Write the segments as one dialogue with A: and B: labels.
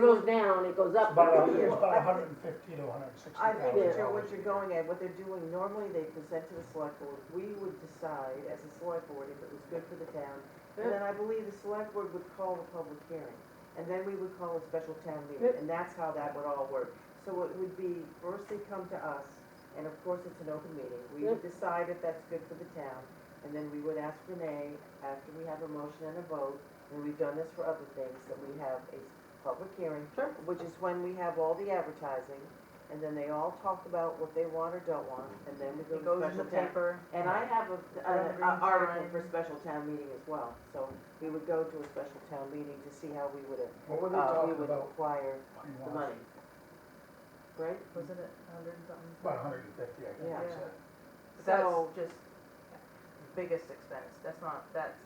A: goes down, it goes up.
B: About, a-
A: here.
B: it's about hundred and fifty to hundred and sixty
C: uh, I think
B: thousand
C: Joe, what
B: dollars.
C: you're going at, what they're doing, normally they present to the select board, we would decide as a select board if it was good for the town. And then I believe the select board would call a public hearing, and then we would call a special town meeting, and that's how that would all work. So it would be, first they come to us, and of course it's an open meeting, we would decide if that's good for the town, and then we would ask Renee, after we have a motion and a vote, and we've done this for other things, that we have a public hearing, which is when we have all the advertising, and then they all talk about what they want or don't want, and then we go to
D: It goes in
C: special
D: the
C: town.
D: paper.
C: And I have a, an
D: Every
C: a article
D: time.
C: for special town meeting as well, so we would go to a special town meeting to see how we would, uh,
B: What were they
C: we
B: talking
C: would
B: about?
C: acquire the
B: money-wise?
C: money. Right?
D: Wasn't it a hundred and something?
B: About hundred and fifty, I think
C: Yeah.
B: they said.
D: But That's
C: So-
D: just biggest expense, that's not, that's,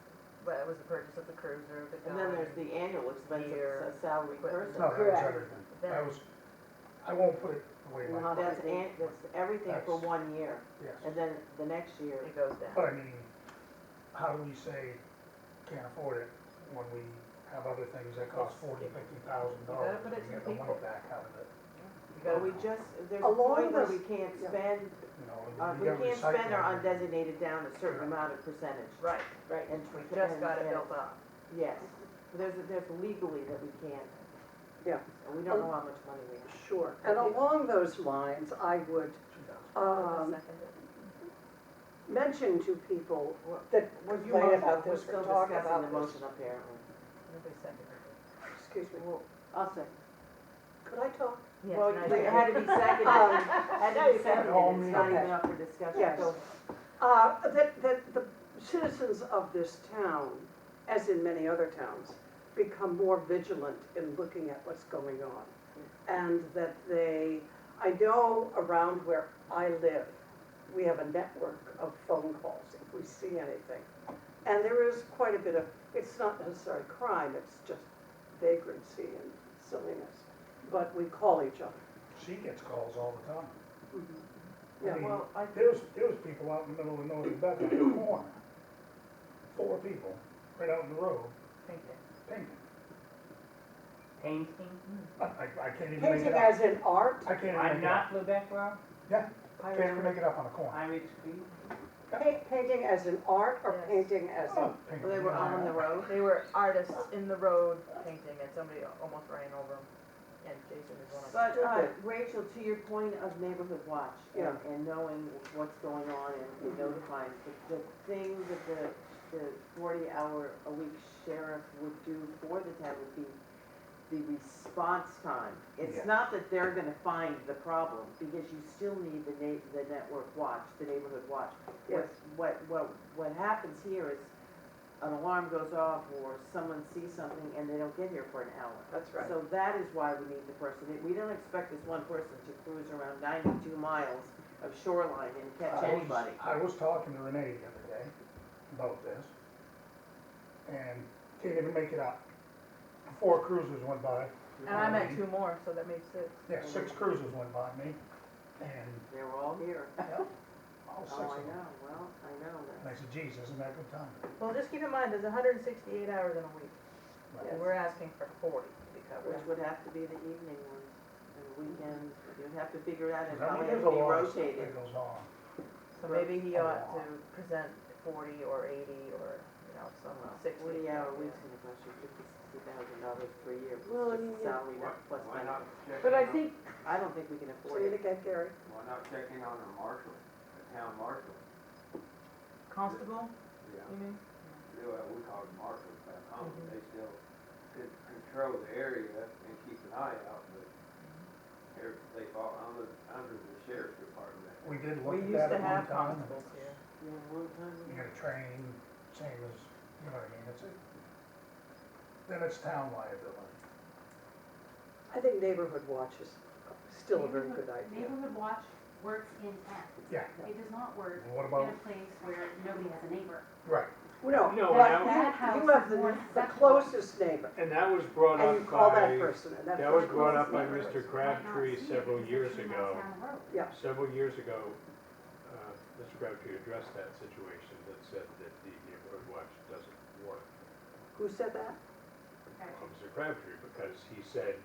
D: that was the purchase of the cruiser, the
C: And then there's
D: gun.
C: the annual expense of
D: Year.
C: a salary person.
B: No, that was
A: Correct.
B: everything.
D: Then-
B: That was, I won't put it away
A: No.
B: like,
C: That's an, that's everything for
B: That's-
C: one year,
B: yes.
C: and then the next year,
D: It goes down.
B: But I mean, how do we say can't afford it when we have other things that cost forty, fifty thousand dollars?
D: put it to
B: We get
D: the
B: the money
D: people.
B: back out of it,
D: You
C: but
D: gotta-
C: we just, there's a
A: A lot
C: point
A: of
C: where
A: us-
C: we can't
A: yeah.
C: spend,
B: you know.
C: uh, we
B: gotta
C: can't spend our
B: recycle it.
C: undesignated down a certain amount of percentage.
D: Right,
A: Right.
C: And
D: we
C: tr-
D: just
C: and-
D: got it
C: and-
D: built up.
C: Yes, there's, there's legally that we can't.
A: Yeah.
C: And we don't know how much money we have.
A: Sure. And along those lines, I would, um, mention to people
C: Well,
A: that
C: Well, you
A: complain
C: must-
A: about this
C: We're
A: or
C: still
A: talk
C: discussing the
A: about this.
C: motion apparently.
D: Nobody seconded it.
A: Excuse me,
C: Well, I'll say.
A: could I talk?
D: Yes,
C: Well,
D: and I
C: it
D: did.
C: had to be seconded,
A: Um,
C: had to be seconded, it's not
A: Okay.
C: even up for discussion,
A: Yes.
C: so.
A: Uh, that, that the citizens of this town, as in many other towns, become more vigilant in looking at what's going on. And that they, I know around where I live, we have a network of phone calls if we see anything. And there is quite a bit of, it's not necessarily crime, it's just vagrancy and silliness, but we call each other.
B: She gets calls all the time.
A: Yeah,
B: I mean,
C: well, I-
B: there was, there was people out in the middle of nowhere, back in the corner, four people, right out in the road,
D: Painting.
E: painting.
B: painting. I, I I can't even make
A: Painting
B: it up.
A: as in art,
B: I can't even
E: I'm
B: make it up.
E: not Lubec Rob,
B: Yeah,
C: Pirates
B: can't even
C: Bay.
B: make it up on a corner.
E: I'm at Street.
A: Pa- Painting as an art or
D: Yes.
A: painting as a,
B: Oh, painting.
C: Well, They were on the road.
D: They were artists in the road painting and somebody almost ran over them and Jason is one of them.
C: But uh,
A: Stupid.
C: Rachel, to your point of neighborhood watch and,
A: Yeah. Mhm.
C: and knowing what's going on and and notifying, the, the thing that the, the forty hour a week sheriff would do for the town would be the response time.
B: Yeah.
C: It's not that they're gonna find the problem, because you still need the na, the network watch, the neighborhood watch.
A: yes.
C: What, what, what, what happens here is an alarm goes off or someone sees something and they don't get here for an hour.
A: That's
C: So that is why we need the person. We don't expect this one person to cruise around ninety-two miles of shoreline and
B: I
C: catch
B: was-
C: anybody.
B: I was talking to Renee the other day about this, and can't even make it up. Four cruisers went by,
D: And I'm at two more, so that makes six.
B: yeah, six cruisers went by me, and
C: They were all here.
B: all six
C: Oh, I
B: of them.
C: know, well, I know
B: And I
C: that.
B: said, geez, isn't that good time?
D: Well, just keep in mind, there's hundred and sixty-eight hours in a week.
B: Right.
D: And we're asking for forty to be covered.
C: Which would have to be the evening ones and the weekends. You'd have to figure out
B: There's
C: how
B: a-
C: they
B: there's
C: have
B: a
C: to be
B: lot of stuff
C: rotated.
B: That goes on.
D: So maybe he ought to present forty or eighty or, you know, some six.
C: Forty hour weeks in a bunch of fifty, sixty thousand dollars per year,
A: Well, I
C: plus
A: mean,
C: just
A: yeah.
C: salary, not plus
F: Why not
C: benefits.
F: check
A: But I
F: in on-
A: think,
C: I don't think we can
A: say it
C: afford it.
A: again, Gary,
F: Why not check in on the marshal, the town marshal?
D: Constable,
F: Yeah.
D: you mean?
F: We call them marshals back home, they still could control the area and keep an eye out, but they're, they fall under, under the sheriff's department.
B: We did look
D: We
B: at
D: used
B: that
D: to
B: at one
D: have
B: time.
D: constables here.
C: Yeah, one time.
B: You get a train, same as, you know what I mean, it's a, then it's town liability.
A: I think neighborhood watch is still a very good idea.
G: Neighborhood watch works in town.
B: Yeah,
G: It does not work
B: Well, what
G: in a
B: about,
G: place where nobody has a neighbor.
B: right,
A: No,
H: No,
A: but
H: that,
A: you,
G: that
A: you have
G: house is more
A: the, the
G: acceptable.
A: closest neighbor,
H: and that was brought
A: and you
H: up
A: call that
H: by,
A: person, and that
H: that was
A: person-
H: brought up by
G: Neighbors
H: Mr.
G: might not
H: Crabtree
G: see it
H: several
G: because
H: years
G: it's two
H: ago.
G: miles down the road.
H: several years ago, uh, Mr. Crabtree addressed that situation that said that the neighborhood watch doesn't work
A: Who said that?
G: Okay.
H: on Mr. Crabtree because he said